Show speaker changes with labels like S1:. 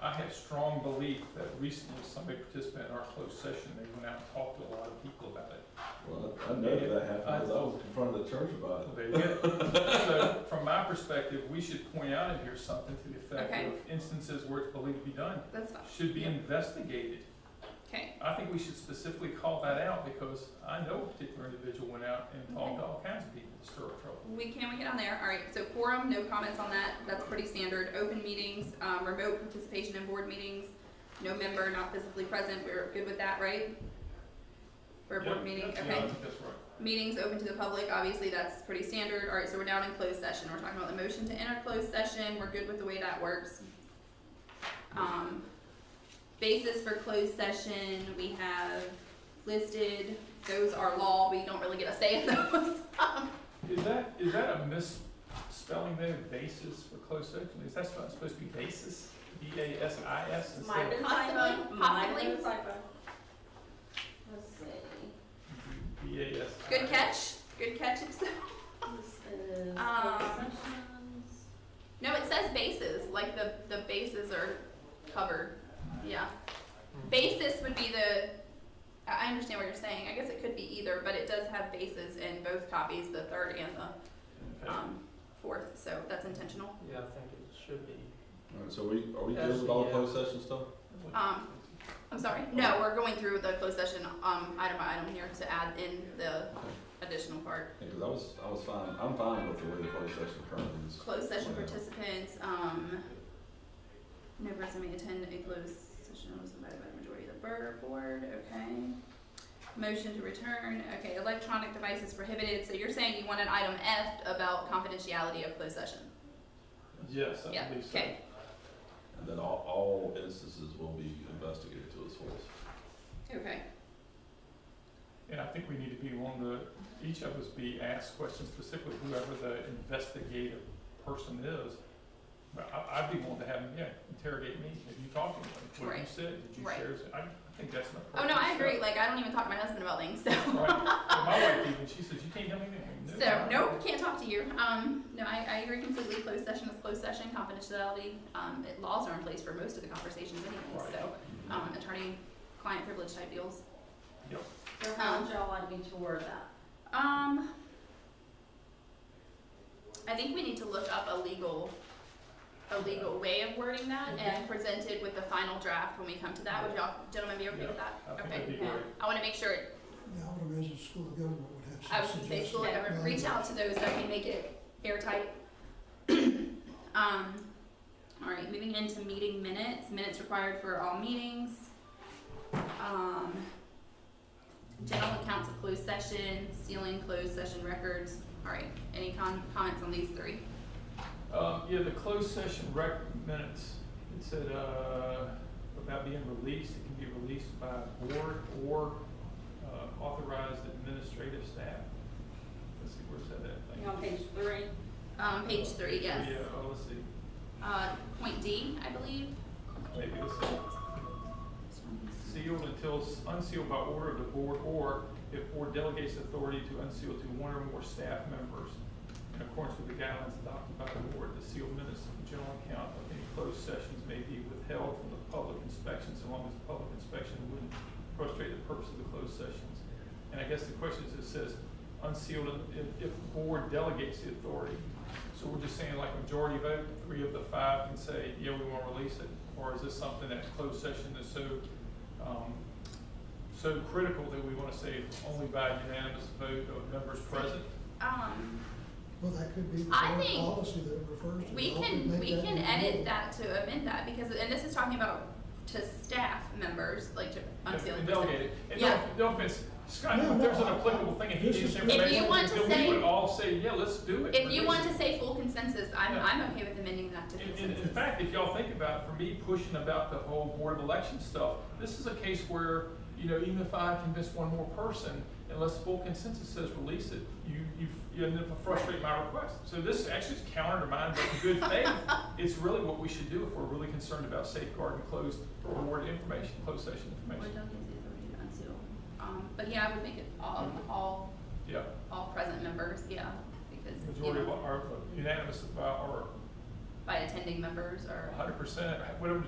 S1: I have strong belief that recently somebody participated in our closed session, they went out and talked to a lot of people about it.
S2: Well, I I know that happened, because I was in front of the church about
S1: Well, There you go. So, from my perspective, we should point out in here something to the effect
S3: Okay.
S1: of instances where it's believed to be done,
S3: That's fine.
S1: should be
S3: Yeah.
S1: investigated.
S3: Okay,
S1: I think we should specifically call that out, because I know a particular individual went out and talked to all kinds of people to stir up trouble.
S3: we can, we get on there. All right, so quorum, no comments on that. That's pretty standard. Open meetings, um, remote participation in board meetings, no member not physically present. We're good with that, right? For a board
S1: Yeah,
S3: meeting,
S1: that's- yeah, I
S3: okay.
S1: think that's right.
S3: Meetings open to the public, obviously, that's pretty standard. All right, so we're down in closed session. We're talking about the motion to enter closed session. We're good with the way that works. Um, basis for closed session, we have listed, those are law. We don't really get a say in those.
S1: Is that, is that a misspelling there, basis for closed session? Is that supposed supposed to be basis? B A S I S
S4: Might have
S1: instead of?
S4: been
S3: Possibly,
S4: typo, might have
S3: possibly.
S4: been typo. Let's see,
S1: B A S I S.
S3: Good catch. Good catch. It's-
S4: this is
S3: Um,
S4: closed sessions.
S3: No, it says bases. Like the, the bases are covered. Yeah. Basis would be the. I I understand what you're saying. I guess it could be either, but it does have bases in both copies, the third and the
S1: Okay.
S3: um, fourth. So that's intentional.
S5: Yeah, I think it should be.
S2: it. Alright, so we, are we good with all the closed session stuff?
S3: Um, I'm sorry. No, we're going through the closed session um, item by item here to add in the additional part.
S2: Yeah, cause I was, I was fine, I'm fine with the way the closed session currently is.
S3: Closed session participants. Um, no person may attend a closed session that was invited by the majority of the bur- board. Okay. Motion to return. Okay. Electronic devices prohibited. So you're saying you want an item F about confidentiality of closed session.
S1: Yes,
S3: Yeah,
S1: I believe so.
S3: okay.
S2: And then all, all instances will be investigated to its fullest.
S3: Okay.
S1: And I think we need to be on the, each of us be asked questions specifically, whoever the investigative person is. But I, I'd be willing to have them, yeah, interrogate me, if you talked to me, what you
S3: Right.
S1: said, did you
S3: Right.
S1: share, I, I think that's an
S3: Oh
S1: appropriate.
S3: no, I
S1: step.
S3: agree. Like I don't even talk to my husband about things. So.
S1: Right, And my wife even, she says, you can't tell me anything, no.
S3: So, nope, can't talk to you. Um, no, I, I agree completely. Closed session is closed session, confidentiality. Um, it, laws are in place for most of the conversations anyway,
S1: Right.
S3: so, um, attorney-client privilege type deals.
S4: So how would y'all like me to word that?
S3: Um, I think we need to look up a legal, a legal way of wording that and present it with the final draft when we come to that. Would y'all, gentlemen, be okay with that?
S1: I think that'd
S3: Okay.
S1: be great.
S3: I wanna make sure, it-
S6: Yeah, I would imagine school of government would have
S3: I
S6: some
S3: was gonna say,
S6: suggestions.
S3: school, ever, reach out to those that can make it airtight. Um, all right, moving into meeting minutes, minutes required for all meetings. Um, general accounts of closed session, sealing closed session records. All right, any con- comments on these three?
S1: Um, yeah, the closed session rec minutes, it said, uh, about being released, it can be released by board or, uh, authorized administrative staff. Let's see, where's that at? Thank
S4: You on page three?
S3: Um, page three, yes.
S1: Yeah, oh, let's see,
S3: Uh, point D, I believe.
S1: maybe this is sealed until s- unsealed by order of the board, or if board delegates authority to unseal to one or more staff members in accordance with the guidelines adopted by the board, the sealed minutes of the general account of any closed sessions may be withheld from the public inspection, so long as the public inspection wouldn't frustrate the purpose of the closed sessions. And I guess the question is, it says unsealed if, if the board delegates the authority. So we're just saying like majority vote, three of the five can say, yeah, we want to release it? Or is this something that's closed session that's so, um, so critical that we want to say only by unanimous vote of members present?
S3: Um,
S6: Well, that could be the
S3: I
S6: board
S3: think
S6: policy that it refers to.
S3: We
S6: I would
S3: can,
S6: make
S3: we
S6: that
S3: can
S6: the rule.
S3: edit that to amend that because, and this is talking about to staff members, like to unsealed.
S1: And delegate it. And
S3: Yeah.
S1: don't, don't offense, Scott,
S6: No,
S1: if there's an
S6: no, I-
S1: applicable thing, if you
S6: this
S1: need
S6: is- If
S1: information,
S3: you want to
S1: then we would
S3: say-
S1: all say, yeah, let's do it.
S3: If you want
S1: Release
S3: to say full consensus, I'm,
S1: Yeah.
S3: I'm okay with amending that to
S1: In, in, in
S3: consensus.
S1: fact, if y'all think about, it, for me pushing about the whole board of election stuff, this is a case where, you know, even if I convince one more person, unless full consensus says release it, you, you, you end up frustrating my request. So this actually is counter to mine, but in good faith, it's really what we should do if we're really concerned about safeguarding closed board information, closed session
S3: Or
S1: information.
S3: delegates the authority to unseal. Um, but yeah, I would make it all, all,
S1: Yeah,
S3: all present members, yeah, because, you
S1: majority of
S3: know,
S1: our unanimous, uh, or
S3: by attending members or.
S1: hundred percent, whatever the